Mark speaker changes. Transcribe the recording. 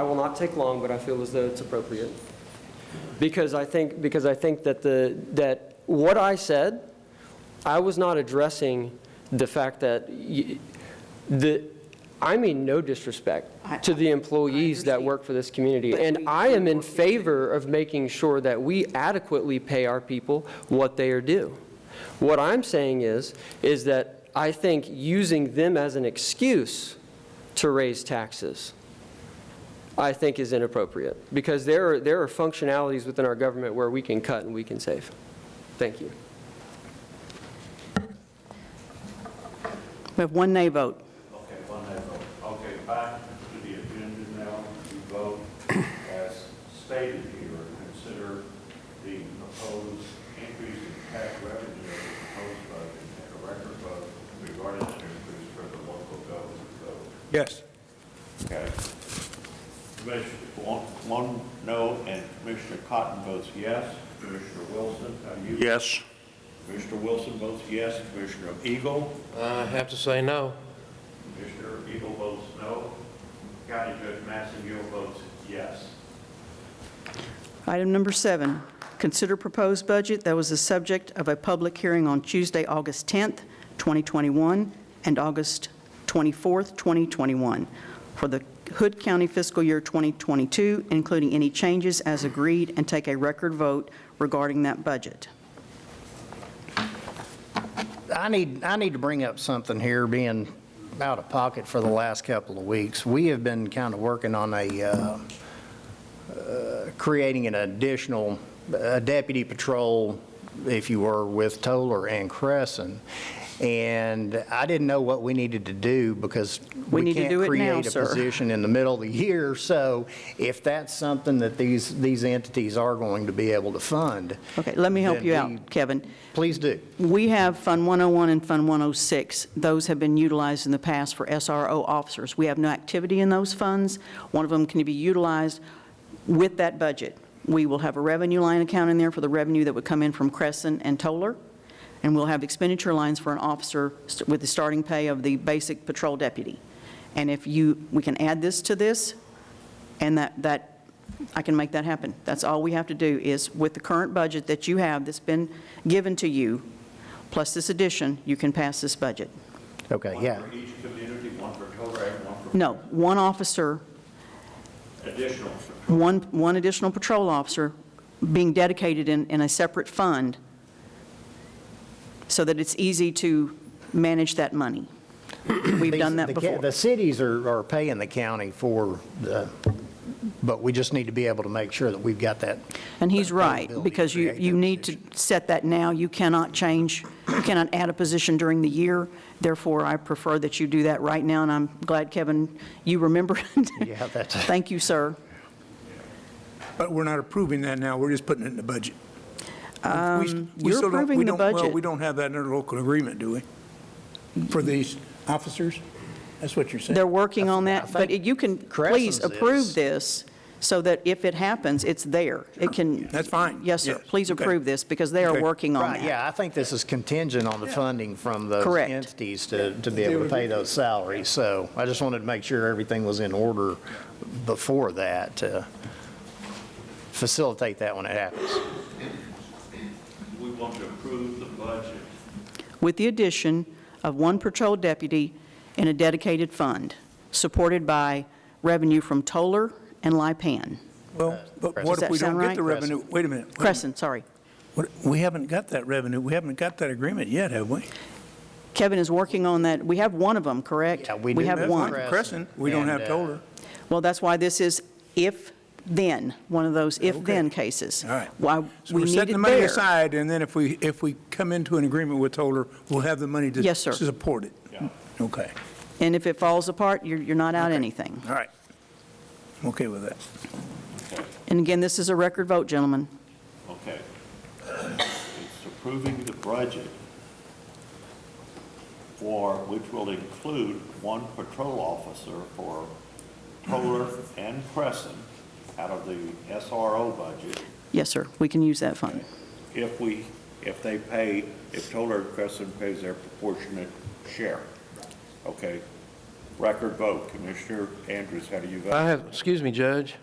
Speaker 1: I will not take long, but I feel as though it's appropriate. Because I think, because I think that the, that what I said, I was not addressing the fact that, y- the, I mean no
Speaker 2: I-
Speaker 1: disrespect to the employees that
Speaker 2: understand.
Speaker 1: work for this community.
Speaker 2: But
Speaker 1: And
Speaker 2: we
Speaker 1: I am
Speaker 2: do
Speaker 1: in
Speaker 2: work here, too.
Speaker 1: favor of making sure that we adequately pay our people what they are due. What I'm saying is, is that I think using them as an excuse to raise taxes I think is inappropriate, because there are, there are functionalities within our government where we can cut and we can save. Thank you.
Speaker 2: We have one nay vote.
Speaker 3: Okay, one day vote. Okay, back to the agenda now. We vote as stated here, and consider the proposed increase in tax revenue of the proposed budget and a record vote regarding an increase for the local government vote.
Speaker 4: Yes.
Speaker 3: Okay. Commissioner, one, one no, and Commissioner Cotton votes yes. Commissioner Wilson, how do you?
Speaker 4: Yes.
Speaker 3: Commissioner Wilson votes yes. Commissioner Eagle?
Speaker 5: I have to say no.
Speaker 3: Commissioner Eagle votes no. County Judge Massengill votes yes.
Speaker 2: Item number seven, consider proposed budget that was the subject of a public hearing on Tuesday, August 10th, 2021, and August 24th, 2021, for the Hood County fiscal year 2022, including any changes as agreed, and take a record vote regarding that budget.
Speaker 6: I need, I need to bring up something here, being out of pocket for the last couple of weeks. We have been kind of working on a, uh, uh, creating an additional uh, deputy patrol, if you were, with Toller and Cresson. And I didn't know what we needed to do because
Speaker 2: We need
Speaker 6: we
Speaker 2: to do it
Speaker 6: can't
Speaker 2: now,
Speaker 6: create a
Speaker 2: sir.
Speaker 6: position in the middle of the year. So if that's something that these, these entities are going to be able to fund.
Speaker 2: Okay, let me help
Speaker 6: then
Speaker 2: you
Speaker 6: we-
Speaker 2: out, Kevin.
Speaker 6: Please do.
Speaker 2: We have Fund 101 and Fund 106. Those have been utilized in the past for SRO officers. We have no activity in those funds. One of them can be utilized with that budget. We will have a revenue line account in there for the revenue that would come in from Crescent and Toller, and we'll have expenditure lines for an officer st- with the starting pay of the basic patrol deputy. And if you, we can add this to this, and that, that, I can make that happen. That's all we have to do is with the current budget that you have that's been given to you, plus this addition, you can pass this budget.
Speaker 6: Okay, yeah.
Speaker 3: One for each community, one for Torrey, one
Speaker 2: No, one officer,
Speaker 3: for additional.
Speaker 2: one, one additional patrol officer being dedicated in, in a separate fund so that it's easy to manage that money. We've done that
Speaker 6: These- the ca-
Speaker 2: before.
Speaker 6: The cities are, are paying the county for the, but we just need to be able to make sure that we've got that.
Speaker 2: And he's right,
Speaker 6: Ability to
Speaker 2: because you,
Speaker 6: create
Speaker 2: you
Speaker 6: that
Speaker 2: need to set that now. You cannot change, you cannot add a position during the year. Therefore, I prefer that you do that right now, and I'm glad, Kevin, you remembered.
Speaker 6: Yeah, that's-
Speaker 2: Thank you, sir.
Speaker 4: But we're not approving that now, we're just putting it in the budget. We s- we
Speaker 2: Um, you're
Speaker 4: still don't- we
Speaker 2: approving the
Speaker 4: don't- well,
Speaker 2: budget.
Speaker 4: we don't have that in our local agreement, do we? For these officers? That's what you're saying?
Speaker 2: They're working on that, but
Speaker 6: think
Speaker 2: you can, please
Speaker 6: Crescent's
Speaker 2: approve
Speaker 6: is-
Speaker 2: this, so that if it happens, it's there. It can.
Speaker 4: That's fine.
Speaker 2: Yes, sir.
Speaker 4: Yes,
Speaker 2: Please
Speaker 4: okay.
Speaker 2: approve this, because they are
Speaker 4: Okay.
Speaker 2: working on
Speaker 6: Right,
Speaker 2: that.
Speaker 6: yeah, I think this is contingent on the funding from those
Speaker 2: Correct.
Speaker 6: entities to, to be able to pay those salaries. So I just wanted to make sure everything was in order before that, to facilitate that when it happens.
Speaker 3: We want to approve the budget.
Speaker 2: with the addition of one patrol deputy in a dedicated fund, supported by revenue from Toller and Lipan.
Speaker 4: Well, but
Speaker 2: Does
Speaker 4: what if
Speaker 2: that
Speaker 4: we don't
Speaker 2: sound
Speaker 4: get
Speaker 2: right?
Speaker 4: the revenue? Wait a minute. wait a
Speaker 2: Crescent, sorry.
Speaker 4: minute. What- We haven't got that revenue, we haven't got that agreement yet, have we?
Speaker 2: Kevin is working on that. We have one of them, correct?
Speaker 6: Yeah, we do
Speaker 2: have
Speaker 6: have
Speaker 2: one.
Speaker 6: Crescent.
Speaker 4: Crescent, we don't have
Speaker 6: And, uh,
Speaker 4: Toller.
Speaker 2: Well, that's why this is if-then, one of those if-then cases.
Speaker 4: All right.
Speaker 2: Why
Speaker 4: So
Speaker 2: we
Speaker 4: we're
Speaker 2: need
Speaker 4: setting
Speaker 2: it
Speaker 4: the money
Speaker 2: there.
Speaker 4: aside, and then if we, if we come into an agreement with Toller, we'll have the money to.
Speaker 2: Yes, sir.
Speaker 4: To support it.
Speaker 3: Yeah.
Speaker 4: Okay,
Speaker 2: And if it falls apart, you're, you're not out anything.
Speaker 4: all right. I'm okay with that.
Speaker 2: And again, this is a record vote, gentlemen.
Speaker 3: Okay. It's approving the budget for, which will include one patrol officer for Toller and Crescent out of the SRO budget.
Speaker 2: Yes, sir, we can use that fund.
Speaker 3: if we, if they pay, if Toller and Crescent pays their proportionate share. Okay? record vote. Commissioner Andrews, how do you vote?
Speaker 5: I have, excuse me, Judge.